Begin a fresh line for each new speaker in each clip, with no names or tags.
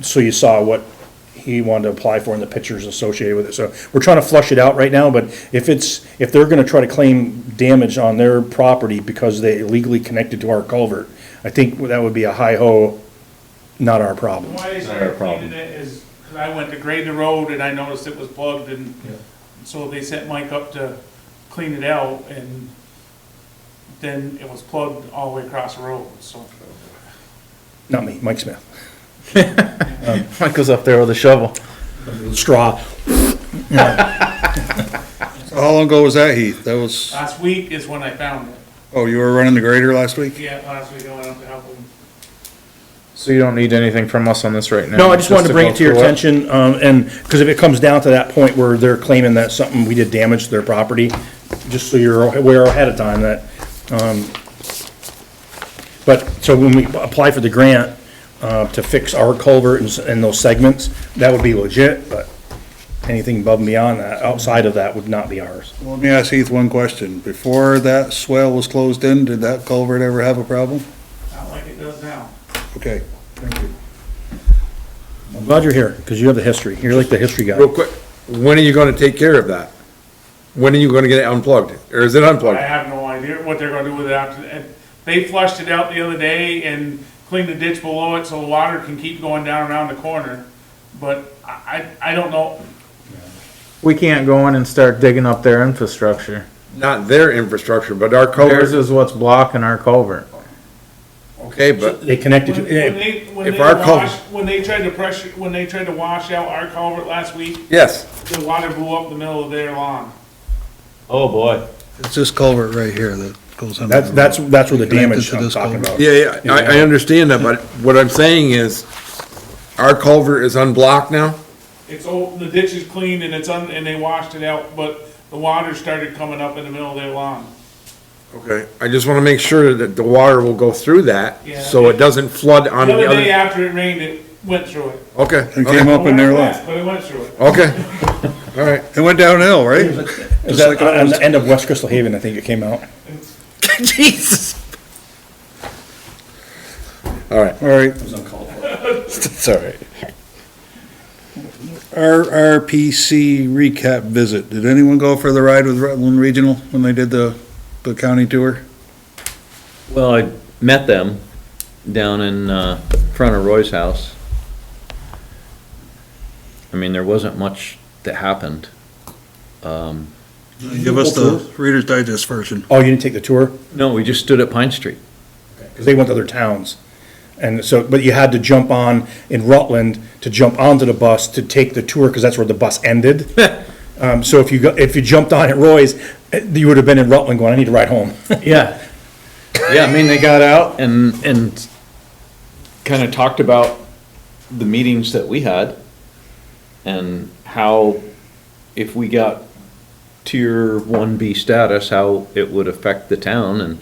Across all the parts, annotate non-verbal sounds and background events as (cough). so you saw what he wanted to apply for and the pictures associated with it. So we're trying to flush it out right now, but if it's, if they're gonna try to claim damage on their property because they illegally connected to our culvert, I think that would be a hi-ho, not our problem.
Why I
Not our
started
problem.
cleaning it is, because I went to grade the road and I noticed it was plugged and so they sent Mike up to clean it out and then it was plugged all the way across the road, so.
Not me, Mike
(laughs)
Smith. Um,
Michael's up there with a shovel.
Straw.
How long ago was that, Heath? That was,
Last week is when I found it.
oh, you were running the grader last week?
Yeah, last week I went up to help him.
So you don't need anything from us on this right now?
No, I just wanted to bring
go
it to your
through
attention, um, and, because if it comes down to that point where they're claiming that something, we did damage to their property, just so you're aware ahead of time that, um, but, so when we apply for the grant, uh, to fix our culvert and, s- and those segments, that would be legit, but anything above and beyond that, outside of that would not be ours.
Let me ask Heath one question. Before that swell was closed in, did that culvert ever have a problem?
Not like it does now.
Okay, thank you.
I'm glad you're here, because you have the history, you're like the history guy.
Real quick, when are you gonna take care of that? When are you gonna get it unplugged? Or is it
I
unplugged?
have no idea what they're gonna do with it after, and they flushed it out the other day and cleaned the ditch below it so the water can keep going down around the corner. But I, I, I don't know,
it. We can't go in and start digging up their infrastructure.
Not their infrastructure, but our
Theirs
culvert,
is what's blocking our culvert.
okay, but
They connected,
When
to-
when
eh,
they, when
if
they
our culvert-
washed, when they tried to pressure, when they tried to wash out our culvert last week,
yes,
the water blew up the middle of their lawn.
Oh, boy.
It's this culvert right here that goes under.
that's, that's, that's where the
Connected
damage
to
I'm
this
talking
culvert.
about.
yeah, yeah, I, I understand that, but what I'm saying is, our culvert is unblocked now?
It's, all the ditch is clean and it's un, and they washed it out, but the water started coming up in the middle of their lawn.
Okay, I just wanna make sure that the water will go through that,
Yeah.
so it doesn't flood on
The
the
other day
other.
after it rained, it went through it.
Okay,
It came
okay,
up in their lot.
But it went through it.
okay, all right.
It went downhill, right?
Is
Just
that
like
on- on
ours.
the end of West Crystal Haven, I think it came out.
Jesus. All (laughs) right,
All right,
it's all right.
RRPC recap visit. Did anyone go for the ride with Rutland Regional when they did the, the county tour?
Well, I met them down in uh, front of Roy's house. I mean, there wasn't much that happened.
Give us the Reader's Digest version.
Oh, you didn't take the tour?
No, we just stood at Pine Street.
Because they went to other towns. And so, but you had to jump on in Rutland to jump onto the bus to take the tour, because that's where the bus ended. Um, so if you, go- if you jumped on at Roy's, eh, you would have been in Rutland going, I need to ride home. (laughs)
Yeah. Yeah, I mean, they got out and, and kind of talked about the meetings that we had and how if we got tier one B status, how it would affect the town and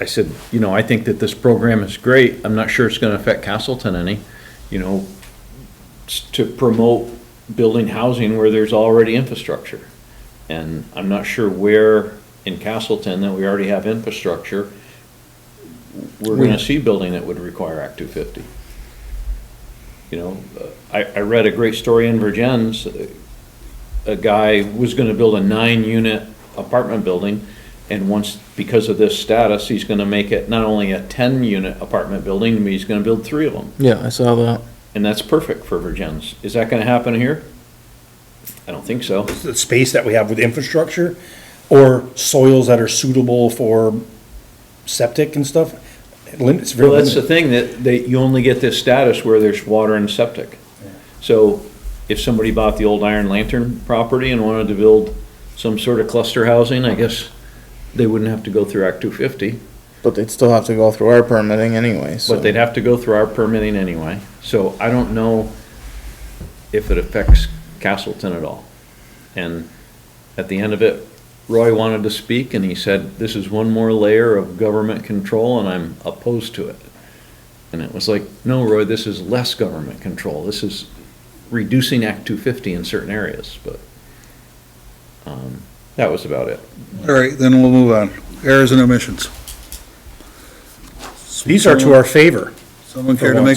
I said, you know, I think that this program is great. I'm not sure it's gonna affect Castleton any, you know, s- to promote building housing where there's already infrastructure. And I'm not sure where in Castleton that we already have infrastructure, we're gonna see building that would require Act two fifty. You know, uh, I, I read a great story in Virgins, uh, a guy was gonna build a nine-unit apartment building, and once, because of this status, he's gonna make it not only a ten-unit apartment building, but he's gonna build three of them.
Yeah, I saw that.
And that's perfect for Virgins. Is that gonna happen here? I don't think so.
The space that we have with infrastructure, or soils that are suitable for septic and stuff, it lim- it's very
Well, that's the
limited.
thing, that, that you only get this status where there's water and septic. So if somebody bought the old Iron Lantern property and wanted to build some sort of cluster housing, I guess they wouldn't have to go through Act two fifty,
But they'd still have to go through our permitting anyway, so.
but they'd have to go through our permitting anyway. So I don't know if it affects Castleton at all. And at the end of it, Roy wanted to speak and he said, this is one more layer of government control and I'm opposed to it. And it was like, no, Roy, this is less government control. This is reducing Act 250 in certain areas, but um, that was about it.
All right, then we'll move on. Errors and omissions.
These are to our favor.
Someone care to make a